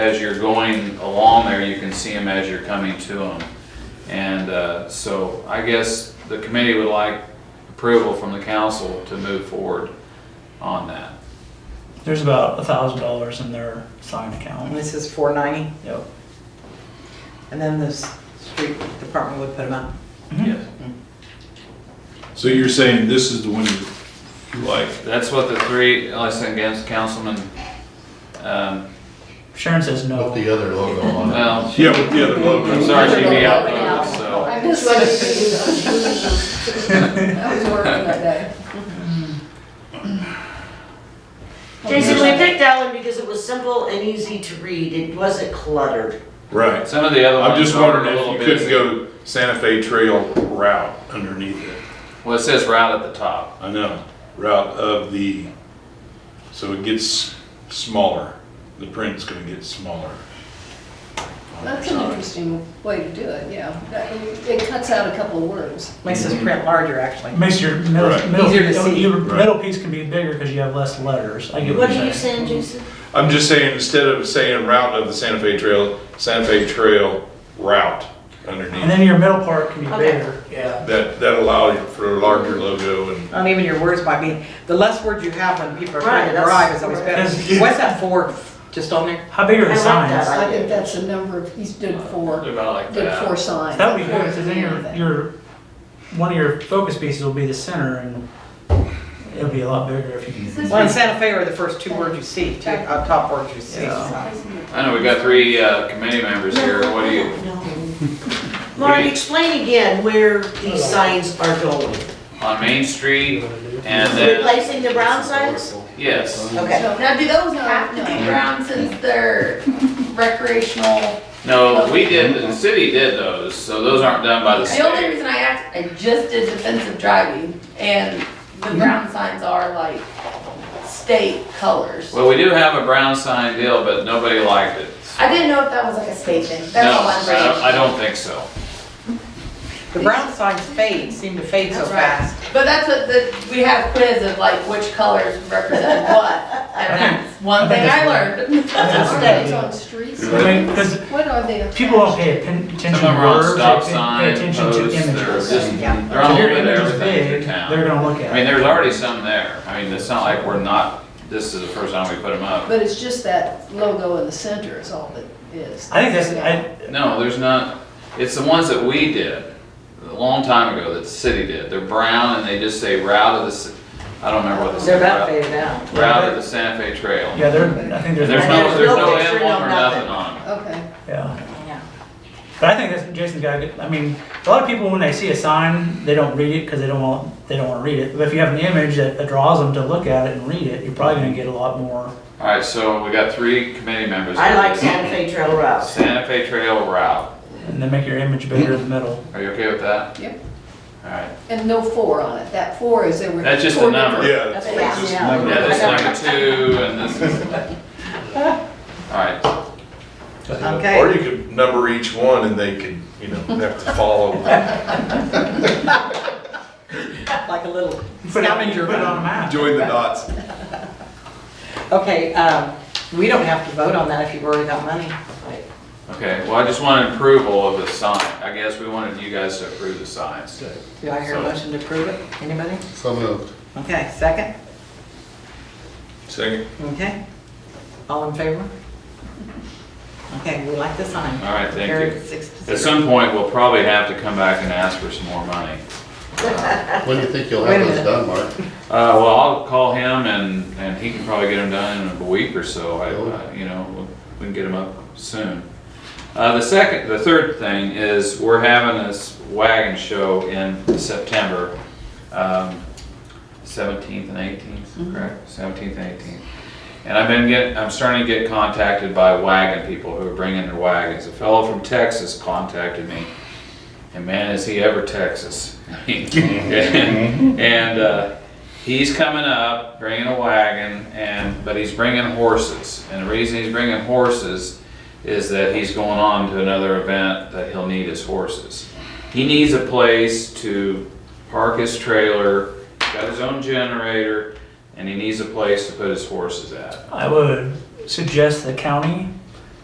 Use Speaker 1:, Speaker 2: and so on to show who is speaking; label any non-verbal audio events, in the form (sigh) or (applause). Speaker 1: as you're going along there, you can see them as you're coming to them. And uh, so I guess the committee would like approval from the council to move forward on that.
Speaker 2: There's about a thousand dollars in their sign
Speaker 3: And
Speaker 2: account.
Speaker 3: this is four ninety,
Speaker 2: Yep.
Speaker 3: and then the s- street department would put them up.
Speaker 4: Mm-hmm.
Speaker 1: Yes.
Speaker 4: So you're saying this is the one you- you like?
Speaker 1: That's what the three, unless against councilman, um,
Speaker 2: Sharon says
Speaker 5: Put
Speaker 2: no.
Speaker 5: the other logo on it.
Speaker 1: well,
Speaker 4: Yeah, with the other logo.
Speaker 1: I'm sorry, she'd be out, uh, so.
Speaker 6: I missed what you did. I was working that day.
Speaker 7: Jason, we picked that one because it was simple and easy to read. It wasn't cluttered.
Speaker 4: Right.
Speaker 1: Some of the other
Speaker 4: I'm
Speaker 1: ones
Speaker 4: just
Speaker 1: are a
Speaker 4: wondering if
Speaker 1: little
Speaker 4: you couldn't
Speaker 1: busy.
Speaker 4: go Santa Fe Trail route underneath it.
Speaker 1: Well, it says route at the top.
Speaker 4: I know, route of the, so it gets smaller. The print's gonna get smaller.
Speaker 6: That's an interesting way to do it, yeah. That- It cuts out a couple of words.
Speaker 2: Mm-hmm.
Speaker 3: Makes this print larger, actually.
Speaker 2: Makes your middle,
Speaker 4: Right.
Speaker 2: middle,
Speaker 3: Easier to see.
Speaker 2: your
Speaker 4: Right.
Speaker 2: middle piece can be bigger because you have less letters. I get what
Speaker 7: What are
Speaker 2: you're
Speaker 7: you
Speaker 2: saying.
Speaker 7: saying, Jason?
Speaker 4: I'm just saying, instead of saying route of the Santa Fe Trail, Santa Fe Trail route
Speaker 2: And
Speaker 4: underneath.
Speaker 2: then your middle part can be
Speaker 7: Okay.
Speaker 2: bigger. Yeah.
Speaker 4: That, that allowed for a larger logo and
Speaker 3: Not Um, even your words might be, the less words you have when people are
Speaker 7: Right,
Speaker 3: trying to
Speaker 7: that's-
Speaker 3: drive is always better.
Speaker 2: That's- (laughs)
Speaker 3: What's that for, just on there?
Speaker 2: How big are
Speaker 7: I
Speaker 2: the
Speaker 7: like
Speaker 2: signs?
Speaker 7: that.
Speaker 6: I think that's the number of, he's did
Speaker 1: They're
Speaker 6: four,
Speaker 1: Uh, About like
Speaker 6: did four
Speaker 1: that.
Speaker 6: signs.
Speaker 2: That would be
Speaker 6: Four
Speaker 2: good because then your,
Speaker 6: anything.
Speaker 2: your, one of your focus pieces will be the center and it'll be a lot bigger if you.
Speaker 3: Well, in Santa Fe are the first two words you see, two, uh, top words you see.
Speaker 2: Yeah.
Speaker 3: so.
Speaker 1: I know, we got three uh, committee members here. What do you,
Speaker 7: No. Lauren, explain again where these signs are going.
Speaker 1: on Main Street and then,
Speaker 7: Replacing the brown signs?
Speaker 1: yes.
Speaker 7: Okay.
Speaker 6: So-
Speaker 8: Now, do those
Speaker 6: No,
Speaker 8: have to be
Speaker 6: no.
Speaker 8: brown since they're recreational?
Speaker 1: No, we did, the city did those, so those aren't done by the
Speaker 8: The only
Speaker 1: state.
Speaker 8: reason I asked, I just did defensive driving and the brown signs are like state colors.
Speaker 1: Well, we do have a brown sign deal, but nobody liked it.
Speaker 8: I didn't know if that was like a state thing.
Speaker 1: No,
Speaker 8: That's all I'm
Speaker 1: I don't-
Speaker 8: saying.
Speaker 1: I don't think so.
Speaker 3: The brown signs fade, seem to fade so
Speaker 8: That's right.
Speaker 3: fast.
Speaker 8: But that's what the, we have quiz of like which colors represent what. And that's one thing I learned.
Speaker 6: Are
Speaker 2: That's
Speaker 6: those
Speaker 2: a
Speaker 6: on streets?
Speaker 2: Because
Speaker 6: What are they?
Speaker 2: people don't
Speaker 6: attached?
Speaker 2: pay atten-
Speaker 1: Some
Speaker 2: attention
Speaker 1: of
Speaker 2: to
Speaker 1: them are on
Speaker 2: words,
Speaker 1: stop
Speaker 2: they pay-
Speaker 1: sign
Speaker 2: pay attention
Speaker 1: posts,
Speaker 2: to
Speaker 1: they're just,
Speaker 2: images. So
Speaker 3: Yeah.
Speaker 1: they're
Speaker 2: if
Speaker 1: all
Speaker 2: your
Speaker 1: over
Speaker 2: image
Speaker 1: there,
Speaker 2: is
Speaker 1: everything
Speaker 2: big,
Speaker 1: through
Speaker 2: they're
Speaker 1: town.
Speaker 2: gonna look
Speaker 1: I
Speaker 2: at
Speaker 1: mean,
Speaker 2: it.
Speaker 1: there's already some there. I mean, it's not like we're not, this is the first time we put them up.
Speaker 6: But it's just that logo in the center is all that is.
Speaker 2: I think that's, I,
Speaker 1: No, there's not, it's the ones that we did, a long time ago, that the city did. They're brown and they just say route of the, ci- I don't remember what they
Speaker 3: They're
Speaker 1: say.
Speaker 3: about
Speaker 1: route-
Speaker 3: faded out.
Speaker 1: Route of the Santa Fe Trail.
Speaker 2: yeah, there, I think there's.
Speaker 1: And there's no,
Speaker 3: There's
Speaker 1: there's
Speaker 3: no
Speaker 1: no
Speaker 3: picture,
Speaker 1: emblem
Speaker 3: no
Speaker 1: or
Speaker 3: nothing.
Speaker 1: nothing on it.
Speaker 6: Okay.
Speaker 3: Yeah.
Speaker 2: Yeah. But I think that's, Jason's got, a good- I mean, a lot of people, when they see a sign, they don't read it because they don't want, they don't want to read it. But if you have an image that that draws them to look at it and read it, you're probably gonna get a lot more.
Speaker 1: All right, so we got three committee members.
Speaker 7: I like Santa Fe Trail routes.
Speaker 1: Santa Fe Trail route.
Speaker 2: And then make your image bigger in the middle.
Speaker 1: Are you okay with that?
Speaker 6: Yep.
Speaker 1: All right.
Speaker 6: And no four on it. That four is there were.
Speaker 1: That's just a
Speaker 6: four
Speaker 1: number.
Speaker 4: Yeah,
Speaker 6: different-
Speaker 4: that's
Speaker 6: That's
Speaker 4: what
Speaker 6: what-
Speaker 4: this
Speaker 6: yeah.
Speaker 1: Yeah, this is number two and this is. All right,
Speaker 3: Okay.
Speaker 4: Or you could number each one and they could, you know, have to follow.
Speaker 3: Like a little
Speaker 2: Put it on-
Speaker 3: scavenger.
Speaker 2: Put it on
Speaker 3: hunt.
Speaker 2: a map.
Speaker 4: Join the dots.
Speaker 3: Okay, um, we don't have to vote on that if you've already got money.
Speaker 1: okay, well, I just wanted approval of the sign. I guess we wanted you guys to approve the signs.
Speaker 3: Do I hear a motion to approve it? Anybody?
Speaker 5: So moved.
Speaker 3: Okay, second?
Speaker 4: Second.
Speaker 3: Okay. All in favor? Okay, we like the sign.
Speaker 1: All right, thank
Speaker 3: Carried
Speaker 1: you.
Speaker 3: six to
Speaker 1: At
Speaker 3: zero.
Speaker 1: some point, we'll probably have to come back and ask for some more money.
Speaker 5: When do you think you'll
Speaker 3: Wait a
Speaker 5: have those
Speaker 3: minute.
Speaker 5: done, Mark?
Speaker 1: Uh, well, I'll call him and, and he can probably get them done in a week or so. I, I- you know, we'll- we can get them up soon. Uh, the second, the third thing is we're having this wagon show in September, um, seventeenth and eighteenth, correct? Seventeenth and eighteenth. And I've been get, I'm starting to get contacted by wagon people who are bringing their wagons. A fellow from Texas contacted me. And man, is he ever Texas. (laughs) And, uh, he's coming up, bringing a wagon, and, but he's bringing horses. And the reason he's bringing horses is that he's going on to another event that he'll need his horses. He needs a place to park his trailer, He's got his own generator, and he needs a place to put his horses at.
Speaker 2: I would suggest the county